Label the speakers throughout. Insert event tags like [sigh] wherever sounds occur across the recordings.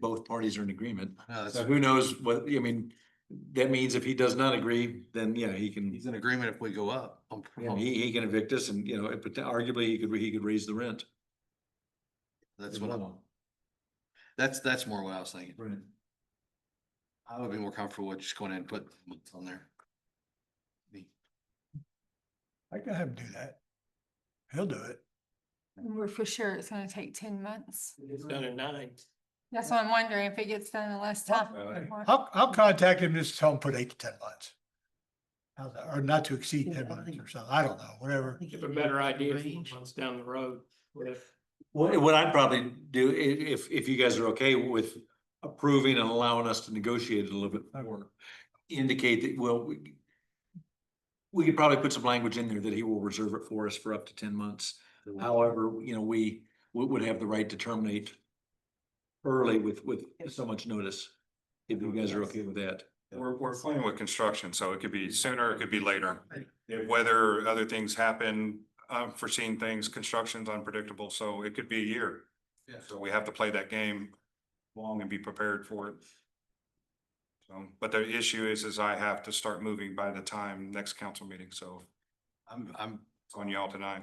Speaker 1: both parties are in agreement.
Speaker 2: No, that's-
Speaker 1: So who knows what, I mean, that means if he does not agree, then, yeah, he can,
Speaker 2: [laughs] He's in agreement if we go up. I'm pro-
Speaker 1: yeah, he, he can evict us and, you know, but arguably he could, he could raise the rent.
Speaker 2: That's what I'm, that's, that's more what I was thinking.
Speaker 1: Right.
Speaker 2: I would be more comfortable with just going in and put it on there.
Speaker 3: I can have him do that. He'll do it.
Speaker 4: We're for sure it's gonna take ten months.
Speaker 5: It's done at nine.
Speaker 4: That's what I'm wondering, if it gets done in less time.
Speaker 1: Well,
Speaker 4: Or-
Speaker 3: I'll, I'll contact him, just tell him put eight to ten months. How's that? Or not to exceed ten months or something, I don't know, whatever.
Speaker 5: Give a better idea a few months down the road with
Speaker 1: What, what I'd probably do, i- if, if you guys are okay with approving and allowing us to negotiate it a little bit more, indicate that, well, we we could probably put some language in there that he will reserve it for us for up to ten months. However, you know, we, we would have the right to terminate early with, with so much notice. If you guys are okay with that.
Speaker 6: We're, we're playing with construction, so it could be sooner, it could be later. Whether other things happen, unforeseen things, construction's unpredictable, so it could be a year.
Speaker 2: Yeah.
Speaker 6: So we have to play that game long and be prepared for it. So, but the issue is, is I have to start moving by the time next council meeting, so
Speaker 2: I'm, I'm
Speaker 6: it's on y'all tonight.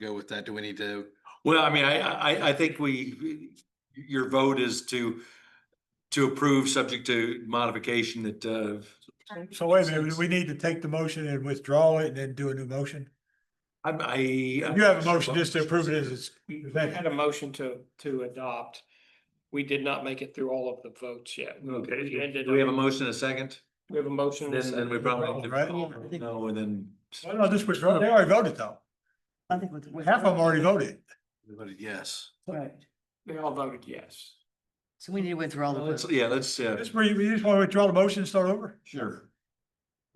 Speaker 2: go with that. Do we need to?
Speaker 1: Well, I mean, I, I, I think we, your vote is to, to approve, subject to modification that, uh,
Speaker 3: So wait a minute, we need to take the motion and withdraw it and then do a new motion?
Speaker 1: I, I.
Speaker 3: You have a motion just to approve it as it's,
Speaker 5: We we had a motion to, to adopt. We did not make it through all of the votes yet.
Speaker 1: Okay,
Speaker 5: ended Mm.
Speaker 1: do we have a
Speaker 5: up-
Speaker 1: motion and a second?
Speaker 5: We have a motion.
Speaker 1: Then,
Speaker 5: and a
Speaker 1: then we probably.
Speaker 5: second.
Speaker 3: Right.
Speaker 1: No, and then.
Speaker 3: well, no, just withdraw, they already voted though.
Speaker 7: I think we-
Speaker 3: Half of them already voted.
Speaker 2: we voted Yes.
Speaker 7: Right.
Speaker 5: They all voted yes.
Speaker 7: So we need to withdraw the
Speaker 1: Let's,
Speaker 7: vote.
Speaker 1: yeah, let's, uh,
Speaker 3: Just, re- you just want to withdraw the motion and start over?
Speaker 1: sure.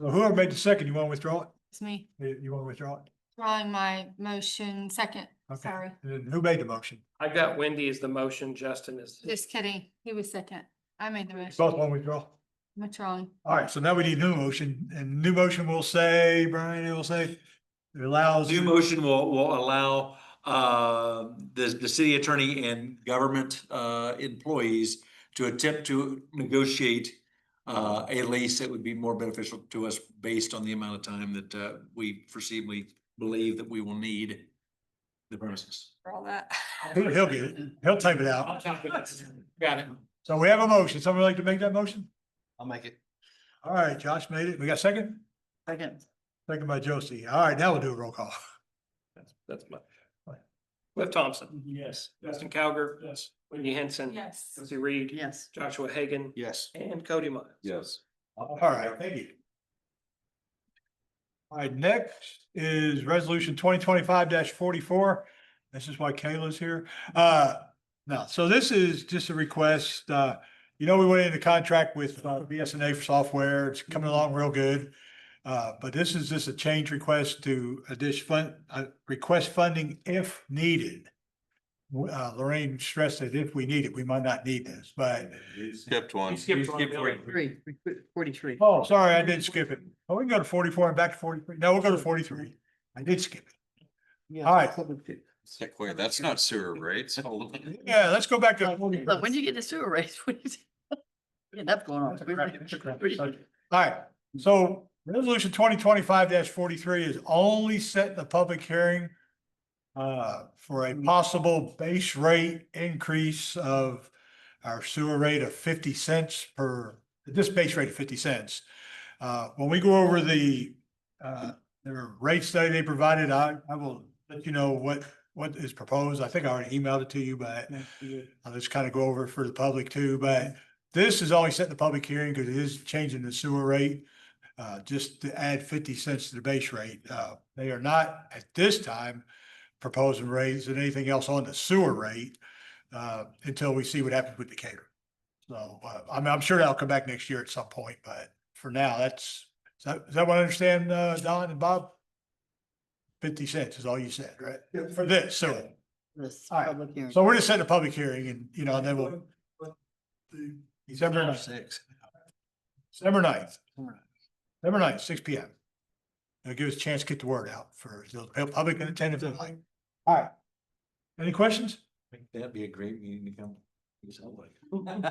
Speaker 3: So Whoever made the second, you want to withdraw it?
Speaker 4: It's me
Speaker 3: You- You want to withdraw it?
Speaker 4: drawing my motion second,
Speaker 3: Okay.
Speaker 4: sorry.
Speaker 3: And then who made the motion?
Speaker 5: I got Wendy as the motion, Justin is.
Speaker 4: Just kidding, he was second. I made the
Speaker 3: Both want to
Speaker 4: motion.
Speaker 3: withdraw?
Speaker 4: I'm trying.
Speaker 3: All right, so now we need new motion, and new motion will say, Brian, it will say, it allows.
Speaker 1: New motion will, will allow, uh, the, the city attorney and government, uh, employees to attempt to negotiate, uh, a lease that would be more beneficial to us based on the amount of time that, uh, we foreseeably believe that we will need the premises.
Speaker 4: for all that.
Speaker 3: He'll he'll get it, he'll type it out.
Speaker 5: Got it.
Speaker 3: So we have a motion, someone like to make that motion?
Speaker 2: I'll make it.
Speaker 3: All right, Josh made it, we got a second?
Speaker 7: Second.
Speaker 3: Second by Josie, all right, now we'll do a roll call.
Speaker 5: That's- That's my. Cliff Thompson. Yes. Justin Cowger. Yes. Wendy Henson.
Speaker 4: Yes.
Speaker 5: Josie Reed.
Speaker 7: Yes.
Speaker 5: Joshua Hagan.
Speaker 2: Yes.
Speaker 5: And Cody Miles.
Speaker 1: Yes.
Speaker 3: All right, thank you. All right, next is resolution twenty twenty-five forty-four. This is why Kayla's here. Uh, now, so this is just a request, uh, you know, we went into contract with uh, BSNA for software. It's coming along real good. Uh, but this is just a change request to addition fund, uh, request funding if needed. Uh, Lorraine stressed that if we need it, we might not need this, but
Speaker 2: Skipped one.
Speaker 5: You skipped one,
Speaker 1: skipped
Speaker 5: Billy.
Speaker 7: Three, forty-three.
Speaker 3: Oh, sorry, I did skip it. Oh, we can go to forty-four and back to forty-three. No, we'll go to forty-three. I did skip it. all right.
Speaker 2: Wait, that's not sewer
Speaker 1: [laughs]
Speaker 2: rates.
Speaker 3: Yeah, let's go back to.
Speaker 7: Look, when you get the sewer rates, [laughs] what is? Enough going on.
Speaker 3: That's a crap- that's a crap
Speaker 7: Three.
Speaker 3: subject. All right, so resolution twenty twenty-five forty-three is only setting the public hearing uh, for a possible base rate increase of our sewer rate of fifty cents per, this base rate of fifty cents. Uh, when we go over the uh, the rate study they provided, I, I will let you know what, what is proposed. I think I already emailed it to you, but I'll just kind of go over it for the public too, but this is always set in the public hearing because it is changing the sewer rate. Uh, just to add fifty cents to the base rate. Uh, they are not at this time proposing rates and anything else on the sewer rate. Uh, until we see what happens with Decatur. So, uh, I'm, I'm sure that'll come back next year at some point, but for now, that's, is that, is that what I understand, uh, Don and Bob? Fifty cents is all you said, right? For this, sewer.
Speaker 7: This
Speaker 3: All right,
Speaker 7: public hearing.
Speaker 3: So we're just setting a public hearing and, you know, and then we'll. December ninth,
Speaker 2: Six.
Speaker 3: December ninth, December ninth, six P M. It'll give us a chance to get the word out for the public and attentive. All right. Any questions?
Speaker 1: That'd be a great meeting to come.